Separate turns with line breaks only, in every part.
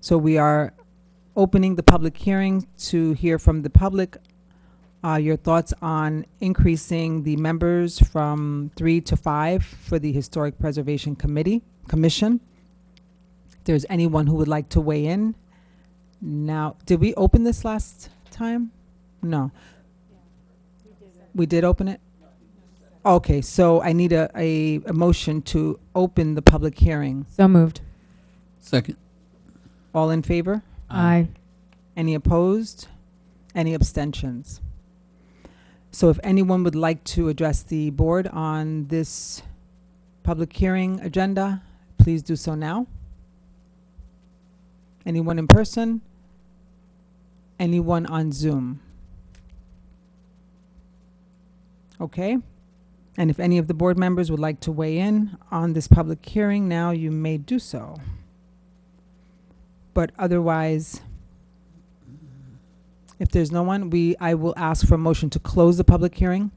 So we are opening the public hearing to hear from the public, uh, your thoughts on increasing the members from three to five for the Historic Preservation Committee, Commission. If there's anyone who would like to weigh in. Now, did we open this last time? No. We did open it? Okay, so I need a, a, a motion to open the public hearing.
So moved.
Second.
All in favor?
Aye.
Any opposed? Any abstentions? So if anyone would like to address the board on this public hearing agenda, please do so now. Anyone in person? Anyone on Zoom? Okay. And if any of the board members would like to weigh in on this public hearing now, you may do so. But otherwise, if there's no one, we, I will ask for a motion to close the public hearing.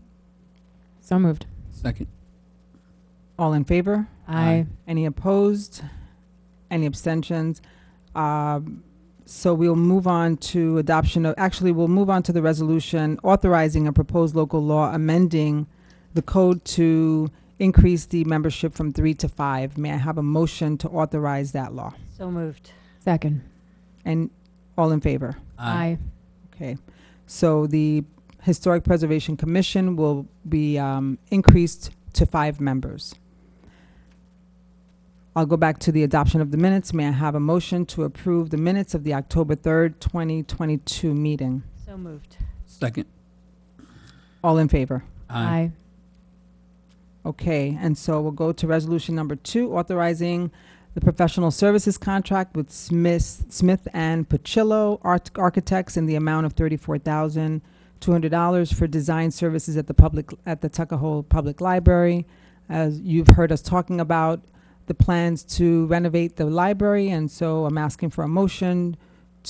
So moved.
Second.
All in favor?
Aye.
Any opposed? Any abstentions? Um, So we'll move on to adoption of, actually, we'll move on to the resolution authorizing a proposed local law amending the code to increase the membership from three to five. May I have a motion to authorize that law?
So moved.
Second.
And all in favor? Okay, so the Historic Preservation Commission will be um, increased to five members. I'll go back to the adoption of the minutes. May I have a motion to approve the minutes of the October 3rd, 2022 meeting?
So moved.
Second.
All in favor?
Aye.
Okay, and so we'll go to resolution number two, authorizing the professional services contract with Smith, Smith and Pacillo Art- Architects in the amount of thirty-four thousand two hundred dollars for design services at the public, at the Tuckahoe Public Library. As you've heard us talking about the plans to renovate the library, and so I'm asking for a motion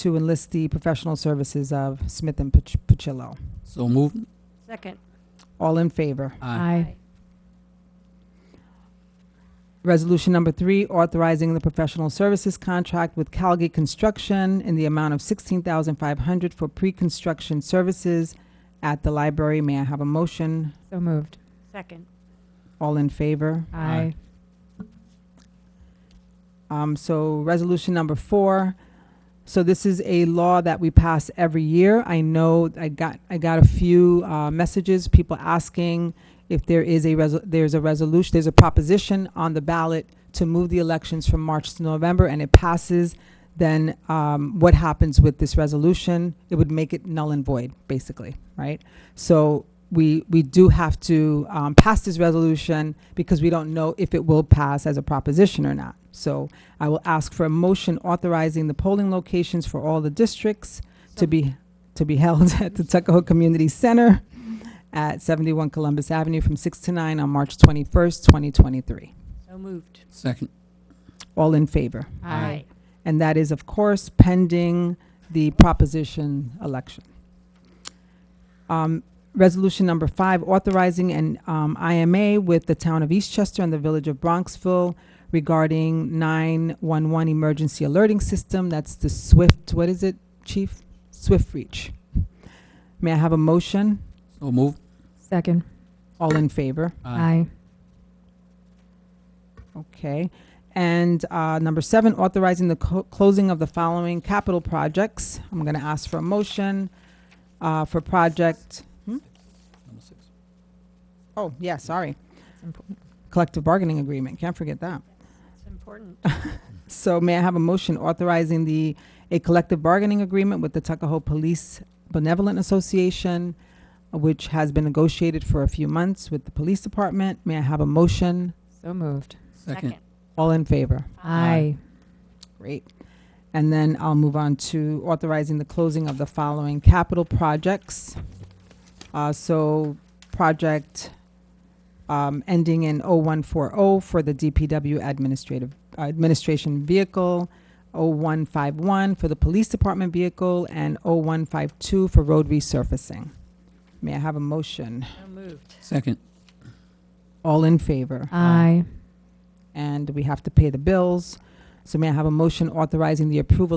to enlist the professional services of Smith and Pac- Pacillo.
So moved.
Second.
All in favor?
Aye.
Resolution number three, authorizing the professional services contract with Calgate Construction in the amount of sixteen thousand five hundred for pre-construction services at the library. May I have a motion?
So moved.
Second.
All in favor?
Aye.
Um, so resolution number four. So this is a law that we pass every year. I know I got I got a few uh, messages, people asking if there is a resol- there's a resolution, there's a proposition on the ballot to move the elections from March to November, and it passes. Then um, what happens with this resolution? It would make it null and void, basically, right? So we we do have to um, pass this resolution because we don't know if it will pass as a proposition or not. So I will ask for a motion authorizing the polling locations for all the districts to be, to be held at the Tuckahoe Community Center at 71 Columbus Avenue from 6 to 9 on March 21st, 2023.
So moved.
Second.
All in favor?
Aye.
And that is, of course, pending the proposition election. Um, Resolution number five, authorizing an um, IMA with the town of Eastchester and the village of Bronxville regarding 911 emergency alerting system. That's the SWIFT, what is it, chief? SWIFT Reach. May I have a motion?
So moved.
Second.
All in favor?
Aye.
Okay. And uh, number seven, authorizing the co- closing of the following capital projects. I'm going to ask for a motion uh, for project,
Number six.
oh, yeah, sorry,
It's important.
collective bargaining agreement, can't forget that.
It's important.
So may I have a motion authorizing the, a collective bargaining agreement with the Tuckahoe Police Benevolent Association, which has been negotiated for a few months with the police department. May I have a motion?
So moved.
Second.
All in favor?
Aye.
Great. And then I'll move on to authorizing the closing of the following capital projects. Uh, So project um, ending in 0140 for the DPW administrative, uh, administration vehicle, 0151 for the police department vehicle, and 0152 for road resurfacing. May I have a motion?
So moved.
Second.
All in favor?
Aye.
And we have to pay the bills. So may I have a motion authorizing the approval